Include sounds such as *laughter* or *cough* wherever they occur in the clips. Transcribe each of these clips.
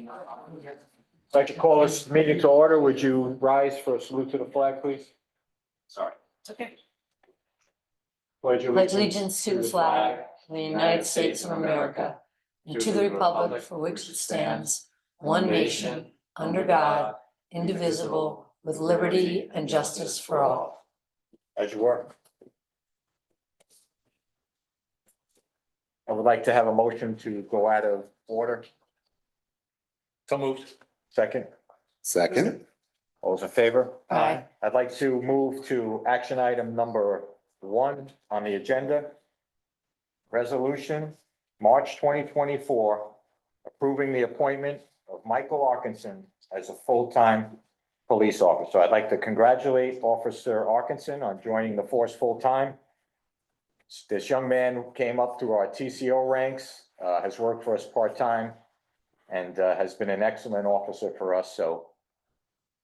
I'd like to call this meeting to order. Would you rise for a salute to the flag, please? Sorry. okay. Pledge Pledge allegiance to the flag of the United States of America and to the republic for which it stands, one nation, under God, indivisible, with liberty and justice for all. As you were. I would like to have a motion to go out of order. So moved. Second, Second, all those in favor? Aye. I'd like to move to action item number one on the agenda. Resolution, March twenty twenty-four, approving the appointment of Michael Arkinson as a full-time police officer. I'd like to congratulate Officer Arkinson on joining the force full-time. This young man came up through our TCO ranks, uh, has worked for us part-time and, uh, has been an excellent officer for us, so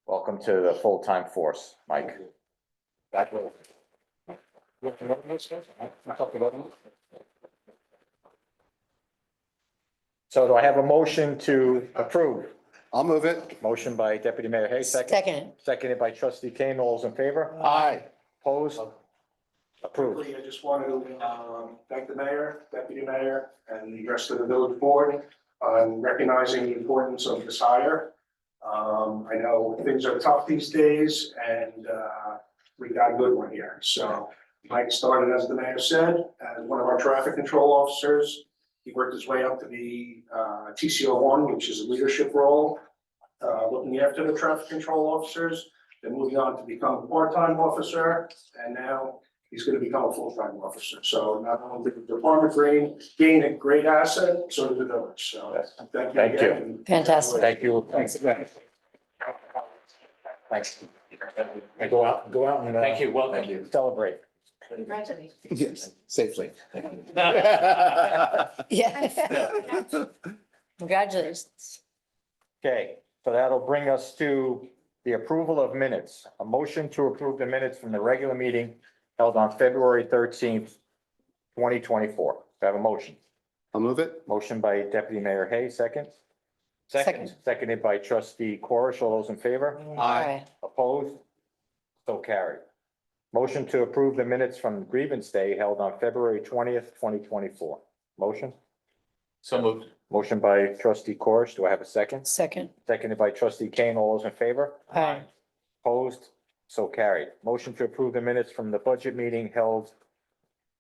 Welcome to the full-time force, Mike. Back row. So do I have a motion to approve? I'll move it. Motion by Deputy Mayor Hay, second, Second. seconded by Trustee Kane. All those in favor? Aye. Opposed? Approved. Quickly, I just want to um, thank the mayor, deputy mayor, and the rest of the village board on recognizing the importance of this hire. Um, I know things are tough these days, and uh, we got a good one here. So Mike started, as the mayor said, as one of our traffic control officers. He worked his way up to be uh, TCO one, which is a leadership role, uh, looking after the traffic control officers, then moving on to become a part-time officer, and now he's gonna become a full-time officer, so not only did the department gain, gain a great asset, so did the village, so thank you Thank you. again. and- Fantastic. Thank you. Thanks. Thanks. Go out, go out and. uh, Thank you, welcome. *laughs* Celebrate. Congratulations. Yes, safely. *laughs* Yeah. Congratulations. Okay, so that'll bring us to the approval of minutes. A motion to approve the minutes from the regular meeting held on February thirteenth, twenty twenty-four. I have a motion. I'll move it. Motion by Deputy Mayor Hay, second. Second. Seconded by Trustee Corish. All those in favor? Aye. Opposed? So carried. Motion to approve the minutes from grievance day held on February twentieth, twenty twenty-four. Motion? So moved. Motion by Trustee Corish. Do I have a second? Second. Seconded by Trustee Kane. All those in favor? Aye. Opposed? So carried. Motion to approve the minutes from the budget meeting held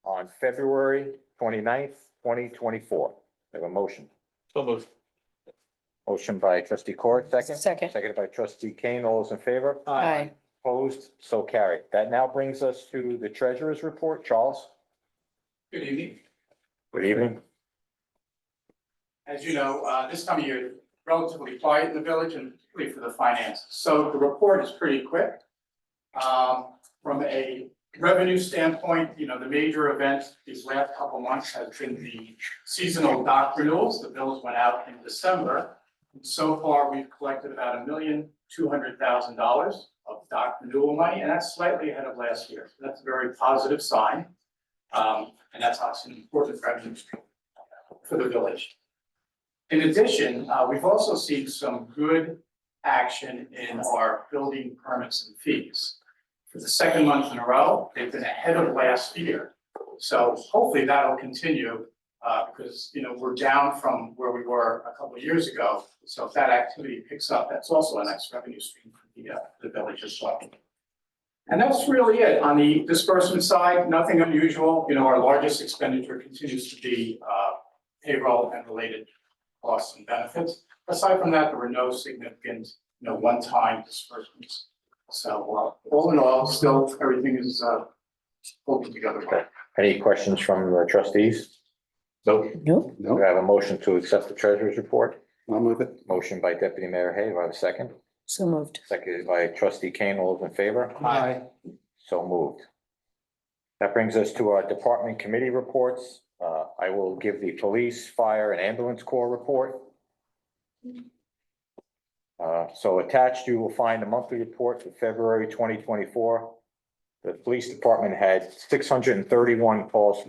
on February 29th, twenty-four. Have a motion. So moved. Motion by trustee Court, second. Second. Seconded by trustee Kane. All those in favor? Aye. Opposed? So carried. That now brings us to the treasurer's report. Charles? Good evening. Good evening. As you know, uh, this time of year, relatively quiet in the village and particularly for the finances. So the report is pretty quick. Um, From a revenue standpoint, you know, the major event these last couple months has been the seasonal dock renewals. The bills went out in December. And so far, we've collected about a million, two hundred thousand dollars of dock renewal money, and that's slightly ahead of last year. So That's a very positive sign. Um, And that's obviously an important revenue stream for the village. In addition, uh, we've also seen some good action in our building permits and fees. For the second month in a row, they've been ahead of last year. So hopefully that'll continue, uh, because, you know, we're down from where we were a couple of years ago. So if that activity picks up, that's also a nice revenue stream for the, uh, the village as well. And that's really it. On the disbursement side, nothing unusual. You know, our largest expenditure continues to be, uh, payroll and related costs and benefits. Aside from that, there were no significant, you know, one-time disbursements. So, uh, all in all, still, everything is, uh, holding together. well. Any questions from the trustees? Nope. Nope. We No, have a motion to accept the treasurer's report. I'll move it. Motion by deputy mayor Hay. Do I have a second? So moved. Seconded by trustee Kane. All those in favor? So moved. That brings us to our department committee reports. Uh, I will give the police, fire and ambulance corps report. Uh, so attached, you will find a monthly report for February twenty twenty-four. The police department had six hundred and thirty-one calls